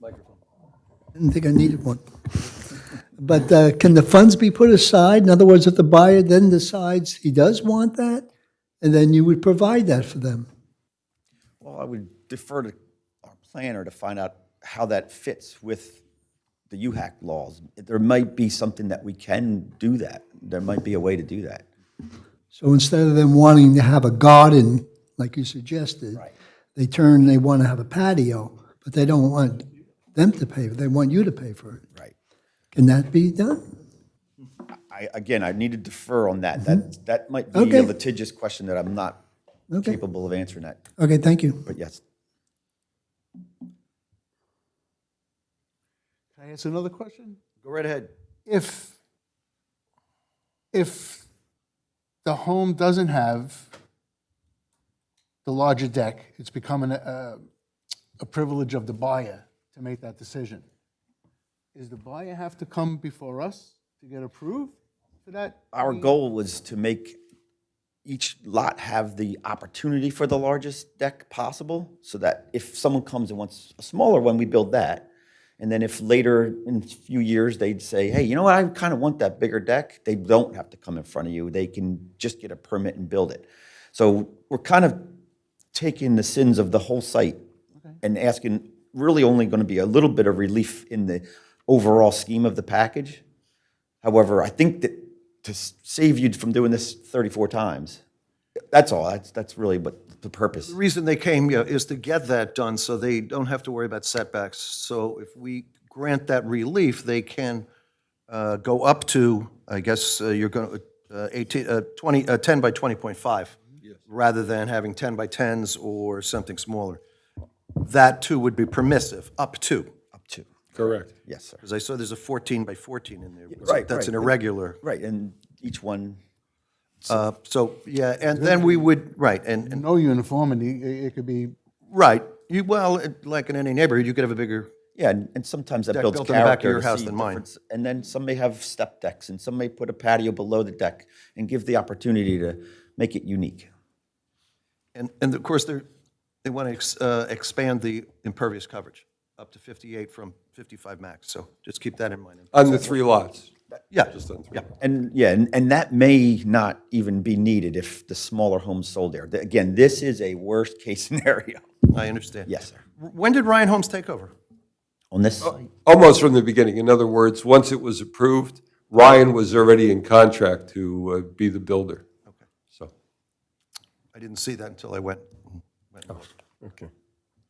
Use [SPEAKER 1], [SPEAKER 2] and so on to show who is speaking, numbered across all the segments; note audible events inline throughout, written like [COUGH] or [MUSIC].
[SPEAKER 1] Microphone.
[SPEAKER 2] Didn't think I needed one. But uh, can the funds be put aside? In other words, if the buyer then decides he does want that, and then you would provide that for them?
[SPEAKER 3] Well, I would defer to our planner to find out how that fits with the UHAC laws. There might be something that we can do that. There might be a way to do that.
[SPEAKER 2] So instead of them wanting to have a garden, like you suggested, they turn, they want to have a patio, but they don't want them to pay, they want you to pay for it.
[SPEAKER 3] Right.
[SPEAKER 2] Can that be done?
[SPEAKER 3] I, again, I need to defer on that. That, that might be
[SPEAKER 2] Okay.
[SPEAKER 3] a litigious question that I'm not
[SPEAKER 2] Okay.
[SPEAKER 3] capable of answering that,
[SPEAKER 2] Okay, thank you.
[SPEAKER 3] but yes.
[SPEAKER 4] Can I ask another question?
[SPEAKER 3] Go right ahead.
[SPEAKER 4] If, if the home doesn't have the larger deck, it's becoming a, a privilege of the buyer to make that decision. Does the buyer have to come before us to get approved for that?
[SPEAKER 3] Our goal was to make each lot have the opportunity for the largest deck possible, so that if someone comes and wants a smaller one, we build that. And then if later in a few years, they'd say, hey, you know what, I kind of want that bigger deck, they don't have to come in front of you, they can just get a permit and build it. So we're kind of taking the sins of the whole site and asking, really only going to be a little bit of relief in the overall scheme of the package. However, I think that to s- save you from doing this 34 times, that's all. That's, that's really what the purpose.
[SPEAKER 1] The reason they came, yeah, is to get that done so they don't have to worry about setbacks. So if we grant that relief, they can uh, go up to, I guess, uh, you're going to, 18, uh, 20, uh, 10 by 20.5, rather than having 10 by 10s or something smaller. That too would be permissive, up to,
[SPEAKER 3] Up to.
[SPEAKER 5] Correct.
[SPEAKER 3] Yes, sir.
[SPEAKER 1] because I saw there's a 14 by 14 in there.
[SPEAKER 3] right,
[SPEAKER 1] That's an
[SPEAKER 3] right.
[SPEAKER 1] irregular.
[SPEAKER 3] Right, and each one,
[SPEAKER 1] Uh, So, yeah, and then
[SPEAKER 3] Mm-hmm.
[SPEAKER 1] we would, right, and, and,
[SPEAKER 4] No uniformity, it it could be
[SPEAKER 1] right, you, well, it- like in any neighborhood, you could have a bigger
[SPEAKER 3] yeah, and, and sometimes that
[SPEAKER 1] Deck
[SPEAKER 3] builds
[SPEAKER 1] built in the back of
[SPEAKER 3] character.
[SPEAKER 1] your
[SPEAKER 3] to
[SPEAKER 1] house
[SPEAKER 3] see
[SPEAKER 1] than mine.
[SPEAKER 3] difference. And then some may have step decks, and some may put a patio below the deck and give the opportunity to make it unique.
[SPEAKER 1] And, and of course, they're, they want to expand the impervious coverage up to 58 from 55 max, so just keep that in mind.
[SPEAKER 5] On the three lots?
[SPEAKER 1] Yeah,
[SPEAKER 5] Just on three.
[SPEAKER 3] And yeah, and, and that may not even be needed if the smaller homes sold there. Th- Again, this is a worst case [LAUGHS] scenario.
[SPEAKER 1] I understand.
[SPEAKER 3] Yes, sir.
[SPEAKER 1] W- When did Ryan Holmes take over?
[SPEAKER 3] On this
[SPEAKER 1] Oh.
[SPEAKER 3] site.
[SPEAKER 5] Almost from the beginning. In other words, once it was approved, Ryan was already in contract to uh, be the builder. Okay. So,
[SPEAKER 1] I didn't see that until I went, went and looked.
[SPEAKER 5] Oh, okay.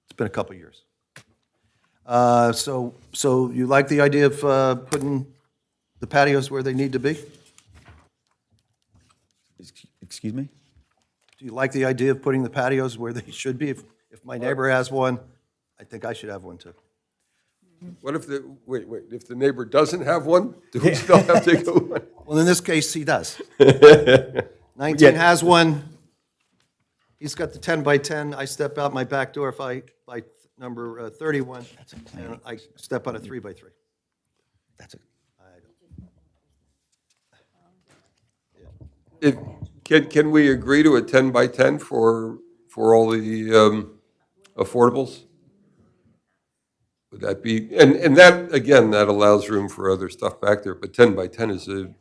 [SPEAKER 1] it's been a couple years. Uh, So, so you like the idea of uh, putting the patios where they need to be? Do
[SPEAKER 3] Ex- Excuse me?
[SPEAKER 1] you like the idea of putting the patios where they should be? If if my neighbor has one, I think I should have one too.
[SPEAKER 5] What if the, wait, wait, if the neighbor doesn't have one, do we still have to go one?
[SPEAKER 1] Well, in this case, he
[SPEAKER 5] [LAUGHS]
[SPEAKER 1] does. 19 has one. He's got the 10 by 10. I step out my back door if I, by number uh, 31, and I step out a 3 by 3.
[SPEAKER 3] That's it.
[SPEAKER 5] If, can, can we agree to a 10 by 10 for, for all the um, affordables? Would that be, and, and that, again, that allows room for other stuff back there, but 10 by 10 is a,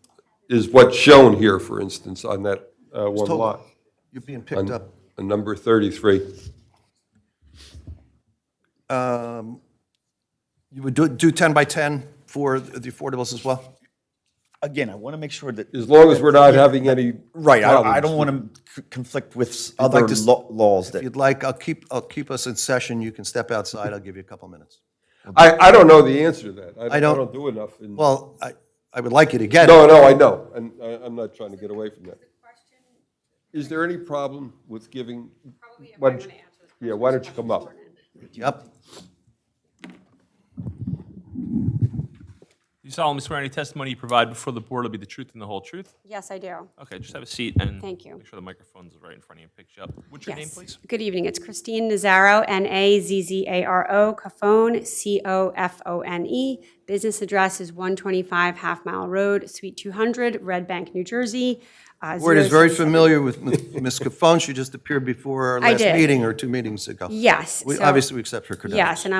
[SPEAKER 5] is what's shown here, for instance, on that uh, one lot,
[SPEAKER 1] You're being picked up.
[SPEAKER 5] on number 33.
[SPEAKER 1] You would do, do 10 by 10 for the affordables as well?
[SPEAKER 3] Again, I want to make sure that.
[SPEAKER 5] As long as we're not having any.
[SPEAKER 3] Right, I, I
[SPEAKER 5] problems.
[SPEAKER 3] don't want to conflict with s- other
[SPEAKER 1] to s-
[SPEAKER 3] lo- laws
[SPEAKER 1] If
[SPEAKER 3] that,
[SPEAKER 1] you'd like, I'll keep, I'll keep us in session. You can step outside. I'll give you a couple minutes.
[SPEAKER 5] I, I don't know the answer to that. I
[SPEAKER 1] I don't-
[SPEAKER 5] don't do enough. in-
[SPEAKER 1] Well, I, I would like you to get it.
[SPEAKER 5] No, no, I know, and I- I'm not trying to get away from that. Is there any problem with giving? why don't you- Yeah, why don't you come up?
[SPEAKER 1] Yep.
[SPEAKER 6] You solemnly swear any testimony you provide before the board will be the truth and the whole truth?
[SPEAKER 7] Yes, I do.
[SPEAKER 6] Okay, just have a seat and.
[SPEAKER 7] Thank you.
[SPEAKER 6] Make sure the microphone's right in front of you and picks you up. What's your name,
[SPEAKER 7] Yes.
[SPEAKER 6] please?
[SPEAKER 7] Good evening. It's Christine Nazaro, N-A-Z-Z-A-R-O, Cophone, C-O-F-O-N-E. E. Business address is 125 Half Mile Road, Suite 200, Red Bank, New Jersey. uh,
[SPEAKER 1] Word is
[SPEAKER 7] 0
[SPEAKER 1] very familiar with Ms. Cafone. She just appeared before our last
[SPEAKER 7] did.
[SPEAKER 1] meeting or two meetings ago.
[SPEAKER 7] Yes.
[SPEAKER 1] We,
[SPEAKER 7] so-
[SPEAKER 1] obviously, we accept her credentials.
[SPEAKER 7] Yes, and